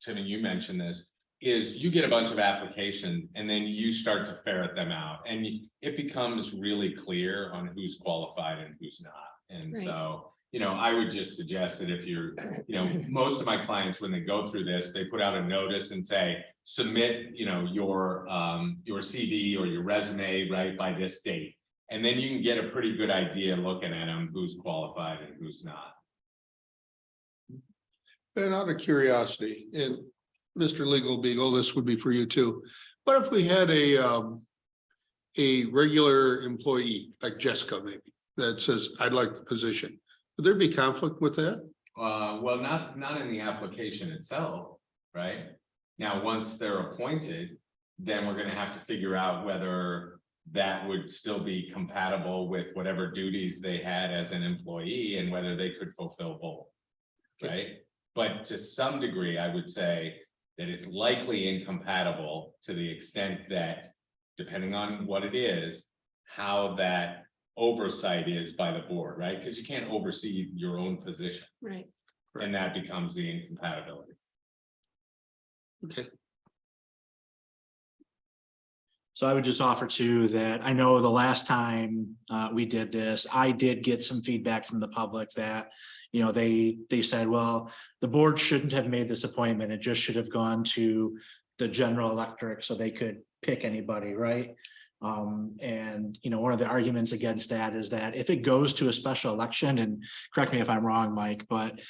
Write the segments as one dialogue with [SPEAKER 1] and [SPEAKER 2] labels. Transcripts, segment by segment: [SPEAKER 1] Timmy, you mentioned this, is you get a bunch of application and then you start to ferret them out and y- it becomes really clear on who's qualified and who's not. And
[SPEAKER 2] Right.
[SPEAKER 1] so, you know, I would just suggest that if you're, you know, most of my clients, when they go through this, they put out a notice and say, submit, you know, your, um, your CV or your resume, right, by this date. And then you can get a pretty good idea looking at them, who's qualified and who's not.
[SPEAKER 3] And out of curiosity, and Mr. Legal Beagle, this would be for you too. What if we had a um. A regular employee like Jessica maybe that says, I'd like the position. Would there be conflict with that?
[SPEAKER 1] Uh, well, not, not in the application itself, right? Now, once they're appointed, then we're gonna have to figure out whether that would still be compatible with whatever duties they had as an employee and whether they could fulfill both. Right? But to some degree, I would say that it's likely incompatible to the extent that, depending on what it is, how that oversight is by the board, right? Because you can't oversee your own position.
[SPEAKER 2] Right.
[SPEAKER 1] And that becomes the incompatibility.
[SPEAKER 3] Okay,
[SPEAKER 4] So I would just offer too that I know the last time uh we did this, I did get some feedback from the public that. You know, they they said, well, the board shouldn't have made this appointment. It just should have gone to the general electric so they could pick anybody, right? Um, and you know, one of the arguments against that is that if it goes to a special election, and correct me if I'm wrong, Mike, but.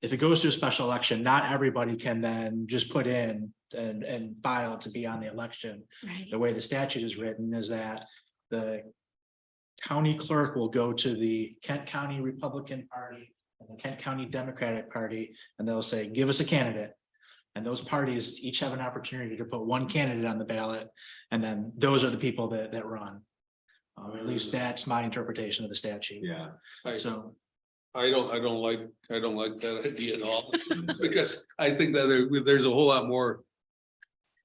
[SPEAKER 4] If it goes to a special election, not everybody can then just put in and and file to be on the election
[SPEAKER 2] Right.
[SPEAKER 4] the way the statute is written is that the county clerk will go to the Kent County Republican Party and the Kent County Democratic Party, and they'll say, give us a candidate. And those parties each have an opportunity to put one candidate on the ballot, and then those are the people that, that run. Um, at least that's my interpretation of the statute,
[SPEAKER 1] Yeah.
[SPEAKER 5] Right.
[SPEAKER 4] so.
[SPEAKER 5] I don't, I don't like, I don't like that idea at all, because I think that there- there's a whole lot more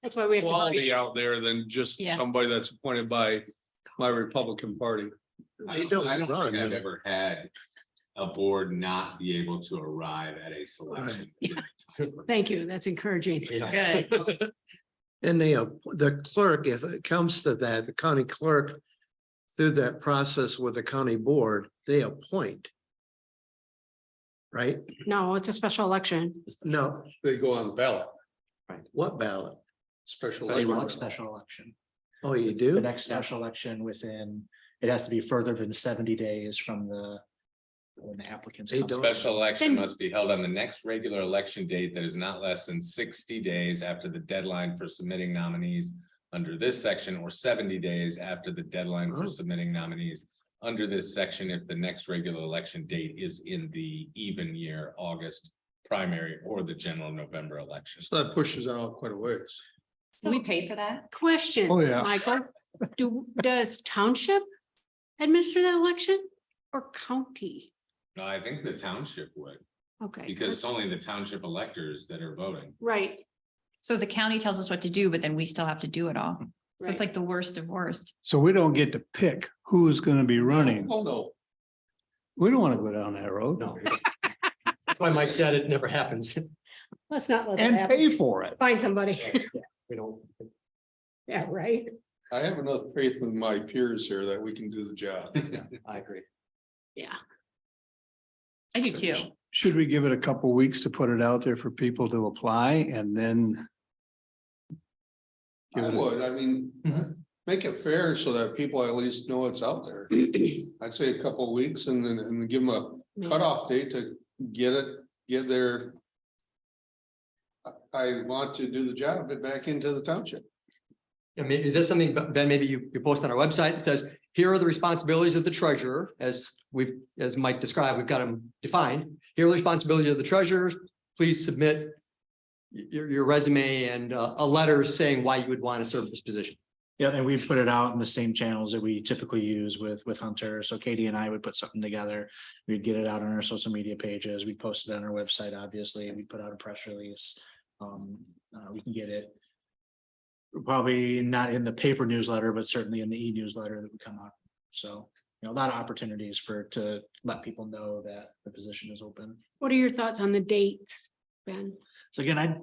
[SPEAKER 2] That's why we have to
[SPEAKER 5] quality
[SPEAKER 2] vote.
[SPEAKER 5] out there than just
[SPEAKER 2] Yeah.
[SPEAKER 5] somebody that's appointed by my Republican Party.
[SPEAKER 1] I
[SPEAKER 3] They
[SPEAKER 1] don't
[SPEAKER 3] don't
[SPEAKER 1] I don't
[SPEAKER 3] run,
[SPEAKER 1] think I've
[SPEAKER 3] yeah.
[SPEAKER 1] ever had a board not be able to arrive at a selection.
[SPEAKER 2] Thank you. That's encouraging. Good.
[SPEAKER 6] And the, uh, the clerk, if it comes to that, the county clerk, through that process with the county board, they appoint. Right?
[SPEAKER 2] No, it's a special election.
[SPEAKER 6] No,
[SPEAKER 3] they go on the ballot,
[SPEAKER 6] what ballot?
[SPEAKER 3] special.
[SPEAKER 4] They
[SPEAKER 3] election.
[SPEAKER 4] want special election,
[SPEAKER 6] Oh, you
[SPEAKER 4] the
[SPEAKER 6] do?
[SPEAKER 4] next special election within, it has to be further than seventy days from the. When the applicants.
[SPEAKER 6] They
[SPEAKER 4] come.
[SPEAKER 6] don't-
[SPEAKER 1] Special election
[SPEAKER 2] Then-
[SPEAKER 1] must be held on the next regular election date that is not less than sixty days after the deadline for submitting nominees under this section or seventy days after the deadline for
[SPEAKER 6] Oh.
[SPEAKER 1] submitting nominees under this section if the next regular election date is in the even year August primary or the general November election.
[SPEAKER 3] So that pushes it out quite a ways.
[SPEAKER 7] So we pay for that?
[SPEAKER 2] Question.
[SPEAKER 3] Oh, yeah.
[SPEAKER 2] Michael, do, does township administer that election or county?
[SPEAKER 1] No, I think the township would,
[SPEAKER 2] Okay.
[SPEAKER 1] because it's only the township electors that are voting.
[SPEAKER 2] Right.
[SPEAKER 7] So the county tells us what to do, but then we still have to do it all. So
[SPEAKER 2] Right.
[SPEAKER 7] it's like the worst of worst.
[SPEAKER 8] So we don't get to pick who's gonna be running.
[SPEAKER 3] Oh, no.
[SPEAKER 8] We don't want to go down that road.
[SPEAKER 6] No. That's why Mike said it never happens.
[SPEAKER 2] Let's not let that
[SPEAKER 8] And
[SPEAKER 2] happen.
[SPEAKER 8] pay for it.
[SPEAKER 2] Find somebody.
[SPEAKER 6] We don't.
[SPEAKER 2] Yeah, right.
[SPEAKER 3] I have enough faith in my peers here that we can do the job.
[SPEAKER 6] I agree.
[SPEAKER 2] Yeah.
[SPEAKER 7] I do too.
[SPEAKER 8] Should we give it a couple weeks to put it out there for people to apply and then?
[SPEAKER 3] I would, I mean, make it fair so that people at least know it's out there. I'd say a couple of weeks and then, and give them a
[SPEAKER 2] Maybe.
[SPEAKER 3] cutoff date to get it, get their. I- I want to do the job, get back into the township.
[SPEAKER 9] I mean, is this something, Ben, maybe you, you post on our website that says, here are the responsibilities of the treasurer, as we've, as Mike described, we've got them defined. Here are the responsibilities of the treasurers, please submit y- your, your resume and uh, a letter saying why you would want to serve this position.
[SPEAKER 4] Yeah, and we put it out in the same channels that we typically use with, with Hunter. So Katie and I would put something together. We'd get it out on our social media pages. We posted it on our website, obviously, and we put out a press release. Um, uh, we can get it. Probably not in the paper newsletter, but certainly in the e-newsletter that would come out. So, you know, a lot of opportunities for, to let people know that the position is open.
[SPEAKER 2] What are your thoughts on the dates, Ben?
[SPEAKER 4] So again, I